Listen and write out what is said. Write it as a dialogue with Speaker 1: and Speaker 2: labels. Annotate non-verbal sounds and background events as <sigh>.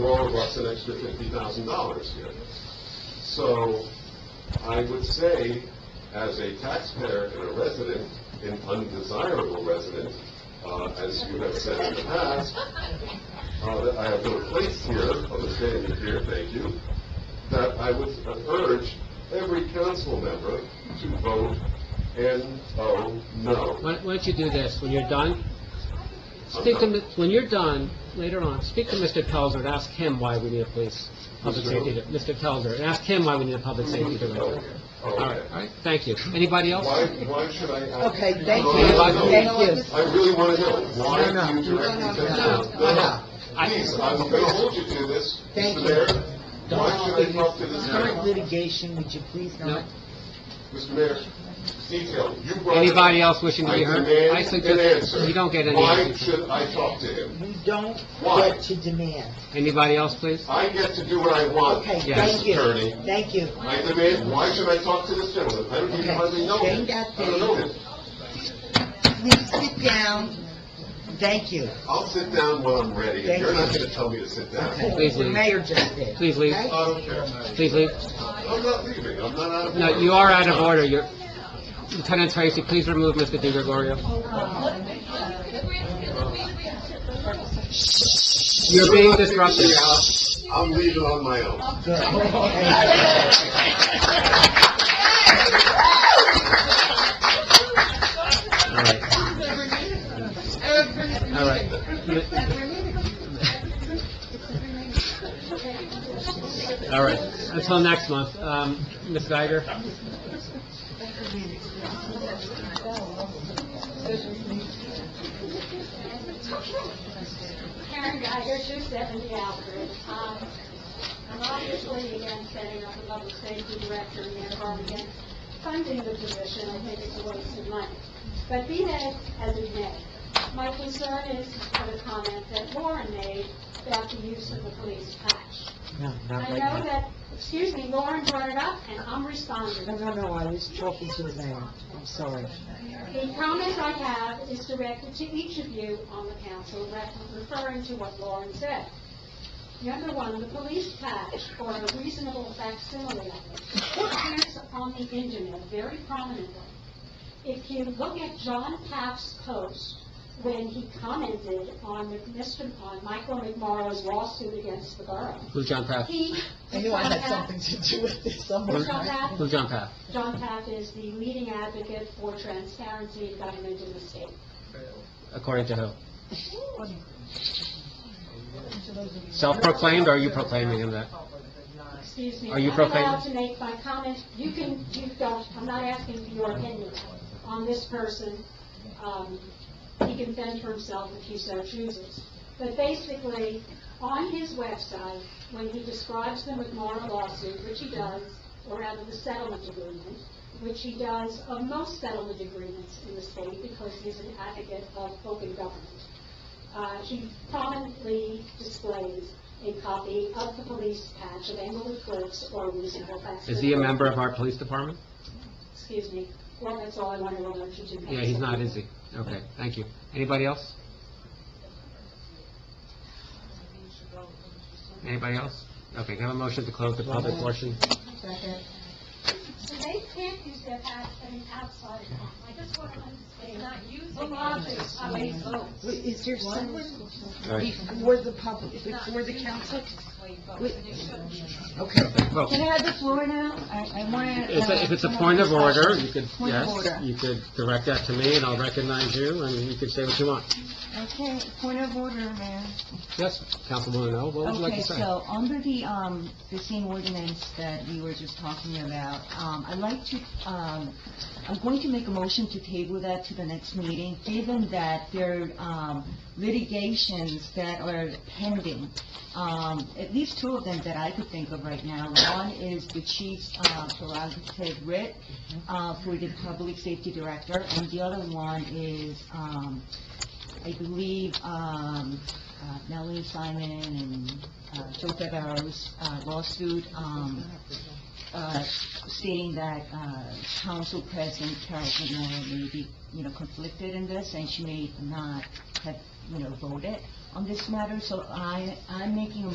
Speaker 1: all of us an extra fifty thousand dollars here. So, I would say, as a taxpayer and a resident, an undesirable resident, uh, as you have said in the past, uh, that I have no place here, of a standing here, thank you, that I would urge every council member to vote N-O, no.
Speaker 2: Why why don't you do this, when you're done, speak to, Mi- when you're done, later on, speak to Mr. Pelzer and ask him why we need a police, public
Speaker 1: Mr.
Speaker 2: safety, di- Mr. Pelzer, and ask him why we need a public safety director.
Speaker 1: Oh,
Speaker 2: All right, all right, thank you. Anybody else?
Speaker 1: Why, why should I ask?
Speaker 3: Okay, thank
Speaker 1: No,
Speaker 3: you,
Speaker 1: no, no.
Speaker 3: thank you.
Speaker 1: I really want to know, why
Speaker 3: No,
Speaker 1: do
Speaker 3: no.
Speaker 1: you directly
Speaker 3: No, no,
Speaker 1: say
Speaker 3: no,
Speaker 1: that?
Speaker 3: no.
Speaker 1: No,
Speaker 3: No.
Speaker 1: no, please, I'm going to hold you to this,
Speaker 3: Thank
Speaker 1: Mr.
Speaker 3: you.
Speaker 1: Mayor. Why should I talk to this
Speaker 3: Current
Speaker 1: man?
Speaker 3: litigation, would you please
Speaker 2: No?
Speaker 3: not?
Speaker 1: Mr. Mayor, detail, you brought... it up.
Speaker 2: Anybody else wishing to
Speaker 1: I
Speaker 2: be heard?
Speaker 1: demand
Speaker 2: I
Speaker 1: an
Speaker 2: suggest,
Speaker 1: answer.
Speaker 2: you don't get any
Speaker 1: Why
Speaker 2: answers.
Speaker 1: should I talk to him?
Speaker 3: You don't
Speaker 1: Why?
Speaker 3: get to demand.
Speaker 2: Anybody else, please?
Speaker 1: I get to do what I want,
Speaker 3: Okay,
Speaker 2: Yes,
Speaker 3: thank you.
Speaker 1: attorney.
Speaker 3: Thank you.
Speaker 1: I demand, why should I talk to this gentleman? I don't even
Speaker 3: Okay.
Speaker 1: hardly know him.
Speaker 3: Bring that
Speaker 1: I don't know him.
Speaker 3: Please sit down. Thank you.
Speaker 1: I'll sit down when I'm ready, and
Speaker 3: Thank
Speaker 1: you're not
Speaker 3: you.
Speaker 1: gonna tell me to sit down.
Speaker 2: Please
Speaker 3: Okay, the
Speaker 2: leave.
Speaker 3: mayor just did.
Speaker 2: Please leave. Uh,
Speaker 3: okay?
Speaker 1: I don't care.
Speaker 2: Please leave.
Speaker 1: I'm not leaving, I'm not out of order.
Speaker 2: No, you are out of order, you're, Lieutenant Tracy, please remove Mr. DiGregorio. You're being disruptive.
Speaker 1: I'm leaving on my own.
Speaker 2: <laughs>
Speaker 3: Good. Thank you.
Speaker 2: All right. All right. All right, until next month. Um, Ms. Geiger?
Speaker 4: Karen Geiger, 270 Alfred. Um, I'm obviously against setting up a public safety director and therefore I'm against funding the position. I think it's a waste of money. But be that as it may, my concern is for the comment that Lauren made about the use of the police patch.
Speaker 3: No, not
Speaker 4: I
Speaker 3: right
Speaker 4: know
Speaker 3: now.
Speaker 4: that, excuse me, Lauren brought it up and I'm responding.
Speaker 3: No, no, no, I was talking to the mayor. I'm sorry.
Speaker 4: The comment I have is directed to each of you on the council, re- referring to what Lauren said. Number one, the police patch, or a reasonable facsimile of it, appears on the internet very prominently. If you look at John Papp's post, when he commented on Mr., on Michael McMorrow's lawsuit against the borough,
Speaker 2: Who's John Paff?
Speaker 4: he...
Speaker 3: I knew I had something to do with this somewhere.
Speaker 4: John Papp
Speaker 2: Who's John Paff?
Speaker 4: John Papp is the leading advocate for transparency in government in the state.
Speaker 2: According to who? Self-proclaimed, or are you proclaiming him that?
Speaker 4: Excuse me.
Speaker 2: Are you
Speaker 4: I'm
Speaker 2: profaning-
Speaker 4: allowed to make my comments. You can, you don't, I'm not asking for your opinion on this person. Um, He can fend for himself if he so chooses. But basically, on his website, when he describes the McMorro lawsuit, which he does, or rather the settlement agreement, which he does of most settlement agreements in the state because he's an advocate of open government. Uh, He prominently displays a copy of the police patch of Englewood Cliffs or reasonable facts.
Speaker 2: Is he a member of our police department?
Speaker 4: Excuse me. Well, that's all I wanted to alert you to.
Speaker 2: Yeah, he's not, is he? Okay, thank you. Anybody else? Anybody else? Okay, can I have a motion to close the public portion?
Speaker 5: So they can't use their pass at an outside home. I just want to understand. Not using. The logic of a vote.
Speaker 3: Wait, Is there someone
Speaker 2: All right.
Speaker 3: before the public, before the council?
Speaker 5: Wait, and it shouldn't be.
Speaker 3: Okay.
Speaker 2: Vote.
Speaker 6: Can I have the floor now? I, I want to...
Speaker 2: If if it's a point of order, you could,
Speaker 6: Point of
Speaker 2: yes,
Speaker 6: order.
Speaker 2: you could direct that to me, and I'll recognize you, and you could say what you want.
Speaker 6: Okay, point of order, Mayor.
Speaker 2: Yes, Councilwoman O, what would you like to say?
Speaker 6: Okay, so, under the, um, the same ordinance that we were just talking about, um, I'd like to, um, I'm going to make a motion to table that to the next meeting, given that there, um, litigations that are pending, um, at least two of them that I could think of right now. One is the chief's, uh, prerogative writ, uh, for the public safety director, and the other one is, um, I believe, um, uh, Melanie Simon and uh, Joe Bevaro's uh, lawsuit um, uh, stating that uh, council president Carol McMorrow may be, you know, conflicted in this, and she may not have, you know, voted on this matter. So I, I'm making a